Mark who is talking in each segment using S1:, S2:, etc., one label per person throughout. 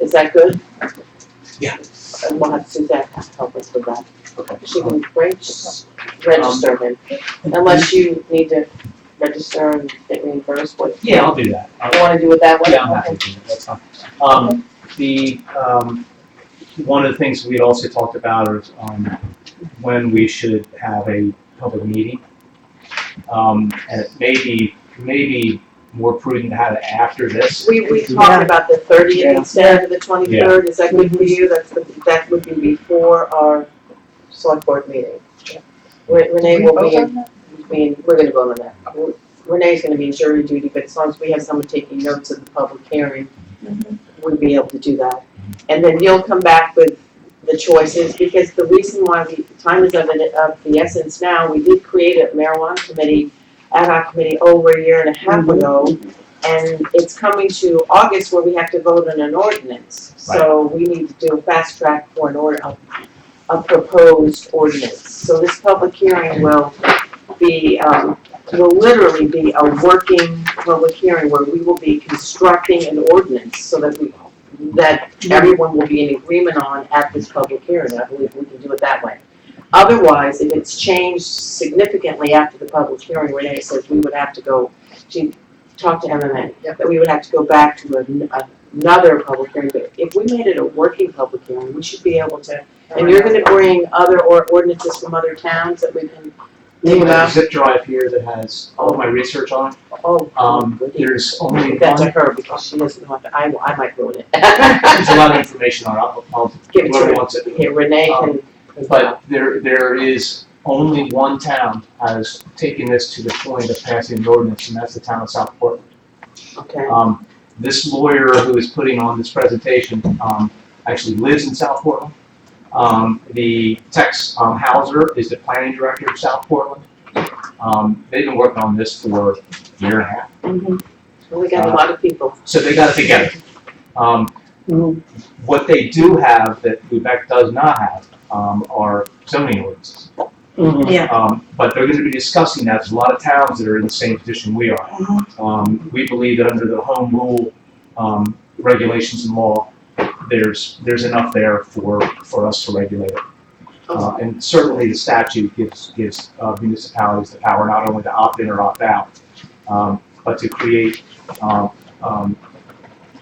S1: Is that good?
S2: Yeah.
S1: And we'll have Suzette help us with that.
S2: Okay.
S1: She can
S2: Uh-huh.
S1: reg-
S2: Um,
S1: register them, unless you need to register and get reimbursed, what?
S2: Yeah, I'll do that. I'll-
S1: You wanna do it that way?
S2: Yeah, I'm happy to do that, that's fine. Um, the, um, one of the things we had also talked about is, um, when we should have a public meeting. Um, and it may be, may be more prudent to have it after this.
S1: We, we
S3: Yeah.
S1: talked about the thirtieth instead of the twenty-third, is that good for you? That's, the- that would be before our select board meeting. Re- Renee will be in, be in- we're gonna vote on that. Renee's gonna be in jury duty, but as long as we have someone taking notes of the public hearing, we'd be able to do that. And then you'll come back with the choices, because the reason why we, time is of, the- of the essence now, we did create a marijuana committee, ad hoc committee over a year and a half ago, and it's coming to August where we have to vote on an ordinance. So we need to do a fast track for an order, a, a proposed ordinance. So this public hearing will be, um, will literally be a working public hearing where we will be constructing an ordinance so that we, that everyone will be in agreement on at this public hearing. I believe we can do it that way. Otherwise, if it's changed significantly after the public hearing, Renee says we would have to go to talk to MMA, that we would have to go back to an- another public hearing, but if we made it a working public hearing, we should be able to, and you're gonna bring other or ordinances from other towns that we can think
S2: I have a
S1: about,
S2: zip drive here that has all of my research on it.
S1: oh,
S2: Um,
S1: goody.
S2: there's only
S1: That's
S2: one,
S1: a her, because she doesn't want to, I, I might ruin
S2: there's a
S1: it.
S2: lot of information on it, I'll- I'll,
S1: Give it to
S2: whoever
S1: her.
S2: wants it.
S1: Here, Renee can.
S2: Um, But there, there is only one town has taken this to the point of passing an ordinance, and that's the town of South Portland.
S1: Okay,
S2: Um, this lawyer who is putting on this presentation, um, actually lives in South Portland. Um, the Tex um, Hauser is the planning director of South Portland. Um, they've been working on this for a year and a half,
S1: Mm-hmm. well, we
S2: uh,
S1: got a lot of people,
S2: so they got it together. Um,
S3: Mhm.
S2: what they do have that Quebec does not have, um, are zoning ordinances. Um, but they're gonna be discussing that, there's a lot of towns that are in the same position we are. Um, we believe that under the home rule, um, regulations and law, there's, there's enough there for, for us to regulate it. Uh, and certainly the statute gives, gives uh, municipalities the power not only to opt in or opt out, um, but to create, um, um,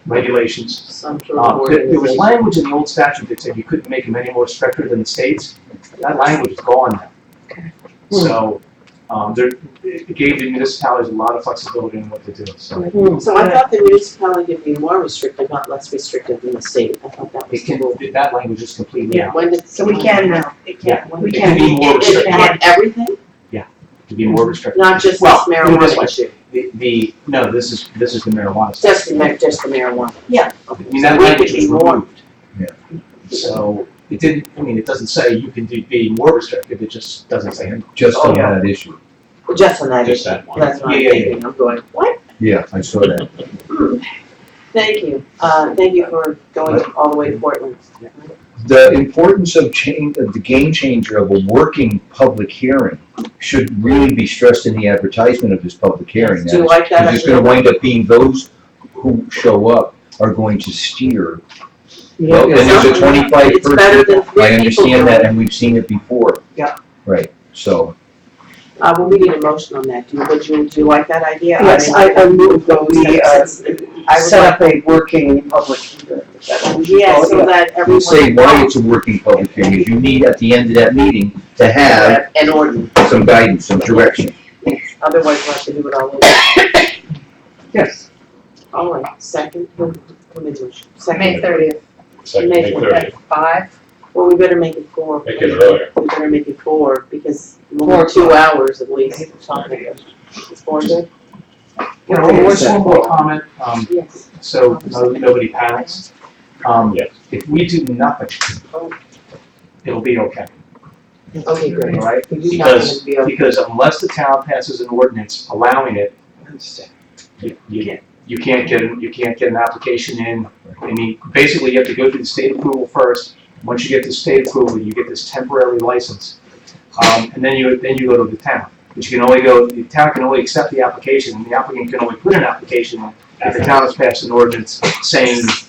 S2: regulations
S1: some sort of
S2: uh, There there was
S1: organization.
S2: language in the old statute that said you couldn't make them any more stricter than the states. That language is gone now. So, um, there, it it gave the municipalities a lot of flexibility in what to do, so.
S1: So I thought the municipality would be more restrictive, not less restrictive than the state, I thought that was.
S2: It can, that language is completely out,
S1: When did.
S3: So we can now. It
S2: Yeah.
S3: We
S2: It
S3: can.
S2: can be more
S1: It- it
S2: restrictive,
S1: had everything,
S2: to be more restrictive.
S1: not just this
S2: Well, put it this
S1: marijuana
S2: way.
S1: issue,
S2: The, the, no, this is, this is the marijuana stuff.
S1: just the, mar- just the marijuana.
S3: Yeah.
S2: I
S1: Okay,
S2: mean,
S1: so
S2: that
S1: we
S2: language
S1: could be
S2: was
S1: more-
S2: removed. So, it didn't, I mean, it doesn't say you can do, be more restrictive, it just doesn't say anything.
S4: Just
S2: Oh,
S4: on
S2: yeah.
S4: that issue.
S1: Just on that
S4: Just
S1: issue,
S4: that one.
S1: that's what I'm
S2: Yeah, yeah, yeah.
S1: thinking, I'm going, what?
S4: Yeah, I saw that.
S1: Hmm. Thank you, uh, thank you for going all the way to Portland.
S4: The importance of change, of the game changer of a working public hearing should really be stressed in the advertisement of this public hearing.
S1: Do you like that?
S4: Because it's gonna wind up being those who show up are going to steer. Well, and there's a twenty-five
S1: It's better than
S4: person,
S1: three
S4: I
S1: people.
S4: understand that, and we've seen it before.
S2: Yeah.
S4: Right, so,
S1: Uh, well, we need a motion on that, do you, would you, do you like that idea?
S3: Yes, I, I move that we, uh,
S1: I would
S3: set up a working public hearing. Oh,
S1: like, yeah, so that
S4: we
S1: everyone.
S4: say why it's a working public hearing, is you need at the end of that meeting to have
S1: An ordinance,
S4: some guidance, some direction.
S1: otherwise we'll have to do it all over.
S3: Yes.
S1: All right, second, who, who made the motion?
S5: May
S1: Second,
S5: thirtieth,
S6: Second,
S5: at
S6: May thirtieth,
S5: five.
S1: well, we better make it four.
S6: make it earlier.
S1: We better make it four, because more than two hours at least. It's four good?
S2: You know, one one more comment, um,
S1: Yes.
S2: so no- nobody panics. Um,
S6: Yes.
S2: if we do nothing, it'll be okay,
S1: Okay, great.
S2: all
S1: You're
S2: right?
S1: not gonna
S2: Because,
S1: be able-
S2: because unless the town passes an ordinance allowing it, you, you, you can't get, you can't get an application in. I mean, basically, you have to go through the state approval first. Once you get the state approval, you get this temporary license. Um, and then you, then you go to the town. But you can only go, the town can only accept the application, and the applicant can only put an application in if the town has passed an ordinance saying